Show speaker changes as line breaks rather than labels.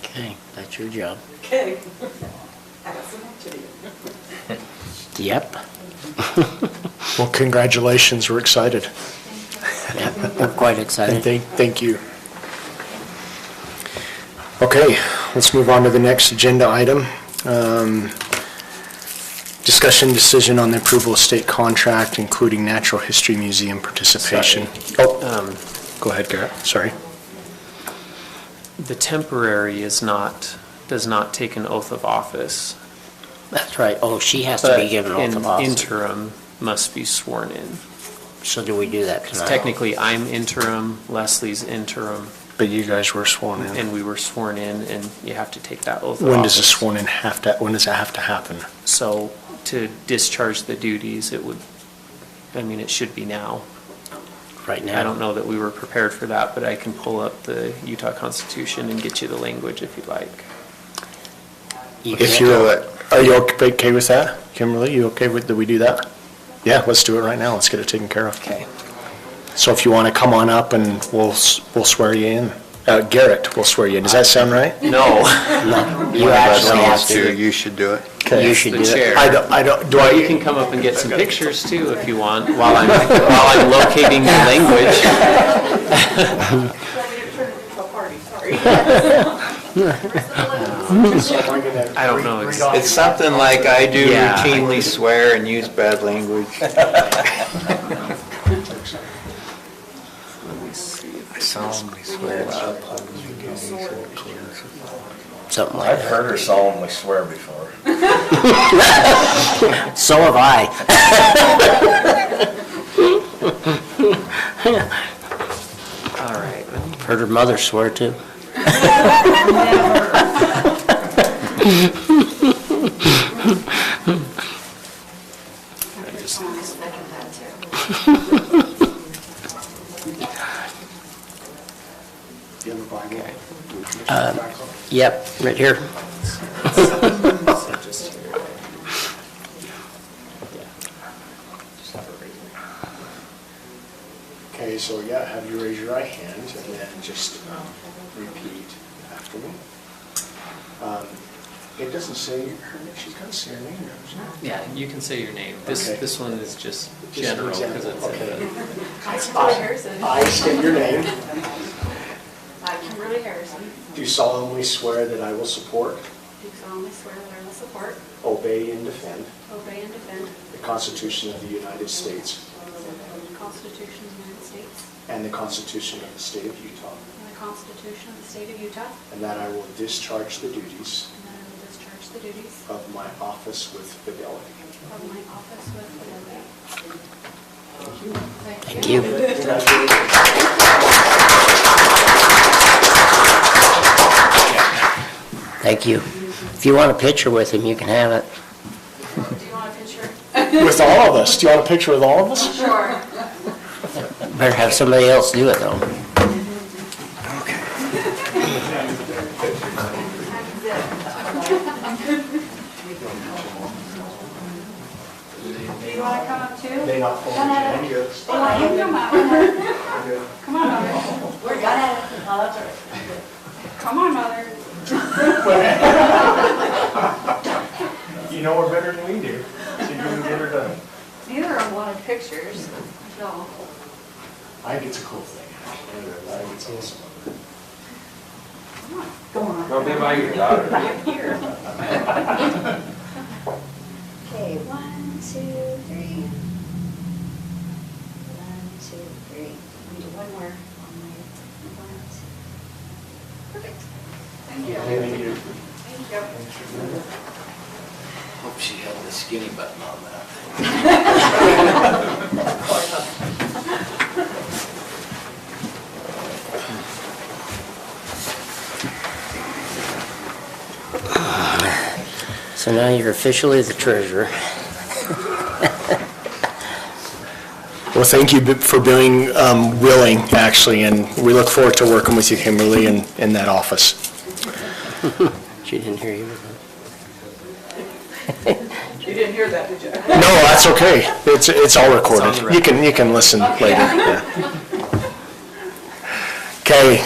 Okay, that's your job.
Okay. Pass it on to you.
Yep.
Well, congratulations, we're excited.
Yep, We're quite
And
excited.
thank, thank you. Okay, let's move on to the next agenda item. Um, Discussion decision on the approval of state contract, including Natural History Museum participation.
um,
Oh, go ahead, Garrett, sorry.
The temporary is not, does not take an oath of office.
That's right. Oh, she has to be
but
given oath
an
of office.
interim must be sworn in.
So do we do that
Because
tonight?
technically, I'm interim, Leslie's interim,
But you guys were sworn in. Oh.
and we were sworn in, and you have to take that oath of office.
When does a sworn in have to, when does that have to happen?
So to discharge the duties, it would, I mean, it should be now.
Right now?
I don't know that we were prepared for that, but I can pull up the Utah Constitution and get you the language if you'd like.
You
If
can't-
you're, uh, are you okay with that? Kimberly, you okay with, that we do that? Yeah, let's do it right now, let's get it taken care of.
Okay.
So if you want to come on up and we'll, s- we'll swear you in. Uh, Garrett will swear you in. Does that sound right?
No,
No, you
One of us
actually have
wants
to.
You should do it.
Okay.
You should
the
do it.
chair.
I don't, I don't, do
Well, you can
I,
come up and get some pictures too if you want, while I'm, while I'm locating the language.
Well, we didn't turn it into a party, sorry.
I don't know. It's-
It's something like I do
Yeah.
routinely swear and use bad language. I solemnly swear.
Something like
I've
that.
heard her solemnly swear before.
So have I.
All right.
Heard her mother swear too. Um, Yep, right here.
Okay, so yeah, have you raise your right hand and then just um, repeat after me. Um, It doesn't say her, she's got to say her name, doesn't it?
Yeah, you can say your name. This,
Okay.
this one is just
Just an
general because it's
example,
in
okay.
the.
I state your name,
I, Kimberly Harrison,
do solemnly swear that I will support,
do solemnly swear that I will support,
obey, and defend
obey, and defend
the Constitution of the United States
the Constitution of the United States
and the Constitution of the State of Utah,
and the Constitution of the State of Utah,
and that I will discharge the duties
and that I will discharge the duties
of my office with fidelity.
of my office with fidelity.
Thank you. Thank you. If you want a picture with him, you can have it.
Do you want a picture?
With all of us. Do you want a picture with all of us?
Sure.
Better have somebody else do it though.
Do you want to come up too?
They not
No, no, no. They want you to come up. Come on, mother. We're done.
uh,
Come on, mother.
You know her better than we do. So you can get her done.
Neither of them wanted pictures, so.
I think it's a cool thing. I think it's awesome.
Go be by your daughter.
Okay, one, two, three. One, two, three. I need one more on my glass. Perfect.
Thank you.
Thank you.
Thank you.
Hope she had the skinny button on that.
So now you're officially the treasurer.
Well, thank you b- for being um, willing, actually, and we look forward to working with you, Kimberly, in, in that office.
She didn't hear you.
You didn't hear that, did you?
No, that's okay. It's, it's all
on
recorded.
the
You can, you can listen later. yeah. Okay,